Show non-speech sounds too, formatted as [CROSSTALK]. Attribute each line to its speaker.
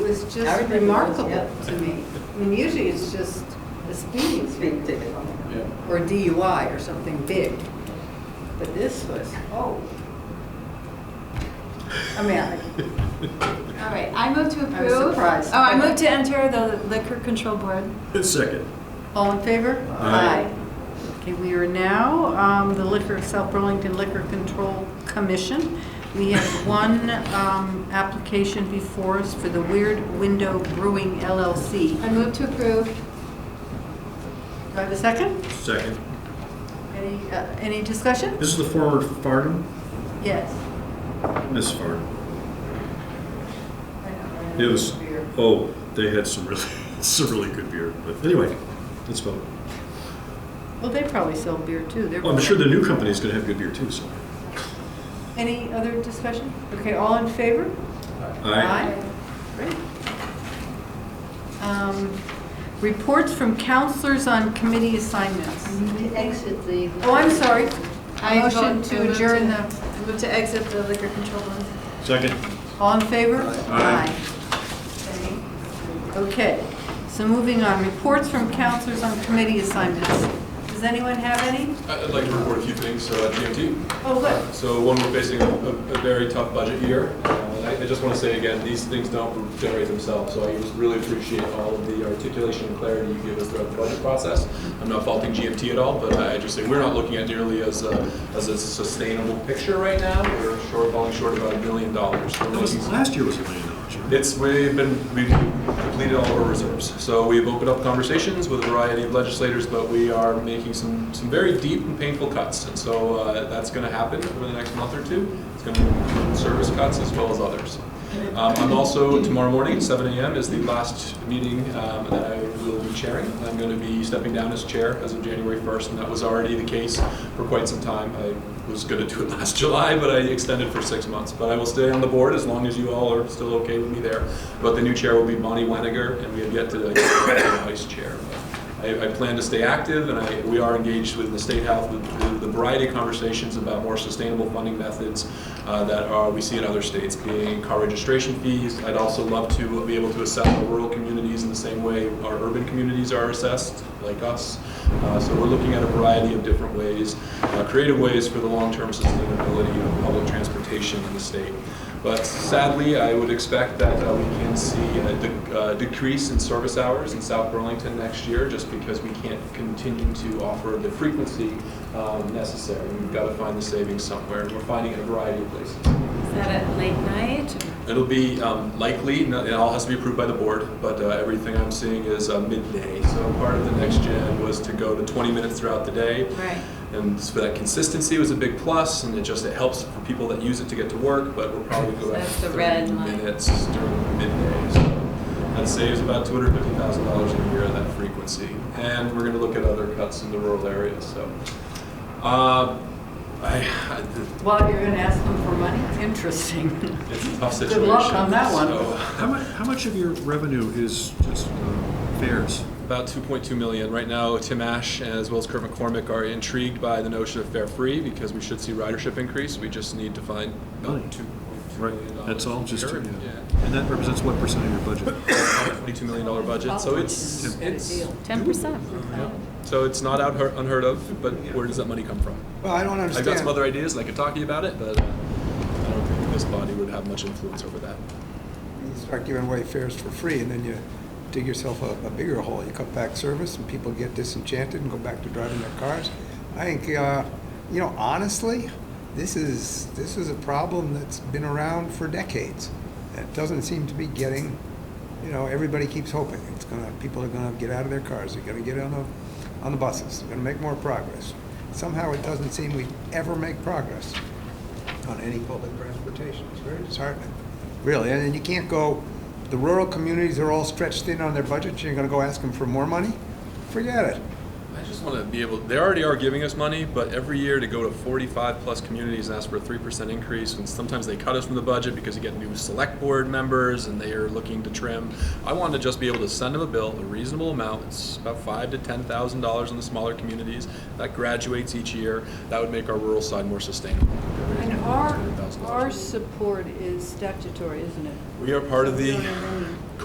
Speaker 1: was
Speaker 2: I
Speaker 1: just
Speaker 2: remember those,
Speaker 1: remarkable
Speaker 2: yep.
Speaker 1: to me. I mean, usually it's just a speeding
Speaker 2: Speeding
Speaker 1: ticket
Speaker 2: ticket on it.
Speaker 3: Yeah.
Speaker 1: or DUI or something big. But this was, oh. I mean, I-
Speaker 4: All right, I move to approve.
Speaker 1: I was surprised.
Speaker 4: Oh, I move to enter the liquor control board.
Speaker 3: Second.
Speaker 1: all in favor?
Speaker 3: Aye.
Speaker 1: Okay, we are now um, the Liquor, South Burlington Liquor Control Commission. We have one um, application before us for the Weird Window Brewing LLC.
Speaker 4: I move to approve.
Speaker 1: Do I have a second?
Speaker 3: Second.
Speaker 1: Any, uh, any discussion?
Speaker 3: This is the former Farnham,
Speaker 1: Yes.
Speaker 3: Miss Farnham. It was, oh, they had some really, [LAUGHS] some really good beer, but anyway, let's vote.
Speaker 1: Well, they probably sell beer too. They're-
Speaker 3: Well, I'm sure the new company's gonna have good beer too, so.
Speaker 1: Any other discussion? Okay, all in favor? Great. Um, Reports from counselors on committee assignments.
Speaker 2: To exit the.
Speaker 1: Oh, I'm sorry.
Speaker 4: I
Speaker 1: Motion
Speaker 4: vote- I
Speaker 1: to
Speaker 4: move
Speaker 1: adjourn the,
Speaker 4: I move to exit the liquor control board.
Speaker 3: Second.
Speaker 1: all in favor?
Speaker 3: Aye.
Speaker 1: Aye. Okay, so moving on, reports from counselors on committee assignments. Does anyone have any?
Speaker 5: I- I'd like to report a few things uh, at GMT.
Speaker 1: Oh, good.
Speaker 5: So one, we're facing a a- a very tough budget year. Uh, and I I just want to say again, these things don't generate themselves, so I just really appreciate all of the articulation and clarity you give us throughout the budget process. I'm not faulting GMT at all, but I I just say, we're not looking at nearly as a as a sustainable picture right now. We're short, falling short about a million dollars. We're
Speaker 3: That was-
Speaker 5: looking-
Speaker 3: Last year was a million dollars, right?
Speaker 5: it's, we've been, we've completed all of our reserves. So we've opened up conversations with a variety of legislators, but we are making some, some very deep and painful cuts. And so uh, that's going to happen over the next month or two. It's going to be service cuts as well as others. Um, I'm also, tomorrow morning at 7 AM is the last meeting um, that I will be chairing. I'm going to be stepping down as chair as of January 1st, and that was already the case for quite some time. I was going to do it [LAUGHS] last July, but I extended for six months. But I will stay on the board as long as you all are still okay with me there. But the new chair will be Bonnie Weniger, and we have yet to [COUGHS] uh, get a vice chair. But I, I plan to stay active, and I, we are engaged with the state health with, with the variety of conversations about more sustainable funding methods uh, that are we see in other states, being car registration fees. I'd also love to be able to assess our rural communities in the same way our urban communities are assessed, like us. Uh, so we're looking at a variety of different ways, uh, creative ways for the long-term sustainability of public transportation in the state. But sadly, I would expect that uh, we can see a de- uh, decrease in service hours in South Burlington next year, just because we can't continue to offer the frequency um, necessary. We've got to find the savings somewhere, and we're finding it in a variety of places.
Speaker 4: Is that at late night?
Speaker 5: It'll be um, likely, no- it all has to be approved by the board, but uh, everything I'm seeing is uh, midday. So part of the next gen was to go to 20 minutes throughout the day.
Speaker 4: Right.
Speaker 5: And so that consistency was a big plus, and it just, it helps for people that use it to get to work, but we'll probably go back to
Speaker 4: That's the
Speaker 5: 30
Speaker 4: red line.
Speaker 5: minutes during midday. So That saves about $250,000 a year on that frequency. And we're going to look at other cuts in the rural areas, so. uh, I,
Speaker 1: Well, you're going to ask them for money? Interesting. [LAUGHS]
Speaker 5: it's a tough situation.
Speaker 1: Good luck on that one.
Speaker 5: so- [LAUGHS]
Speaker 3: How much, how much of your revenue is just uh, fares?
Speaker 5: About 2.2 million. Right now, Tim Ash as well as Kurt McCormick are intrigued by the notion of fare free because we should see ridership increase. We just need to find
Speaker 3: Really?
Speaker 5: about 2.2 million dollars.
Speaker 3: That's all just,
Speaker 5: Sure,
Speaker 3: yeah.
Speaker 5: yeah.
Speaker 3: and that represents what percent of your budget?
Speaker 5: About a $22 million budget, so it's, it's,
Speaker 4: Ten percent.
Speaker 5: so it's not out- unheard of, but where does that money come from?
Speaker 6: Well, I don't
Speaker 5: I've
Speaker 6: understand.
Speaker 5: got some other ideas and I could talk to you about it, but uh, I don't think this body would have much influence over that.
Speaker 6: You start giving away fares for free, and then you dig yourself a, a bigger hole. You cut back service, and people get disenchanted and go back to driving their cars. I think, uh, you know, honestly, this is, this is a problem that's been around for decades. It doesn't seem to be getting, you know, everybody keeps hoping. It's gonna, people are gonna get out of their cars, they're gonna get on the, on the buses, they're gonna make more progress. Somehow it doesn't seem we ever make progress on any public transportation. It's very disheartening, really. And then you can't go, the rural communities are all stretched thin on their budgets, you're gonna go ask them for more money? Forget it.
Speaker 5: I just want to be able, they already are giving us money, but every year to go to 45-plus communities and ask for a 3% increase, and sometimes they cut us from the budget because you get new select board members and they are looking to trim. I want to just be able to send them a bill, a reasonable amount, it's about five to $10,000 in the smaller communities. That graduates each year. That would make our rural side more sustainable.
Speaker 1: And our,
Speaker 5: $200,000.
Speaker 1: our support is statutory, isn't it?
Speaker 5: We are part of the,
Speaker 1: Zoning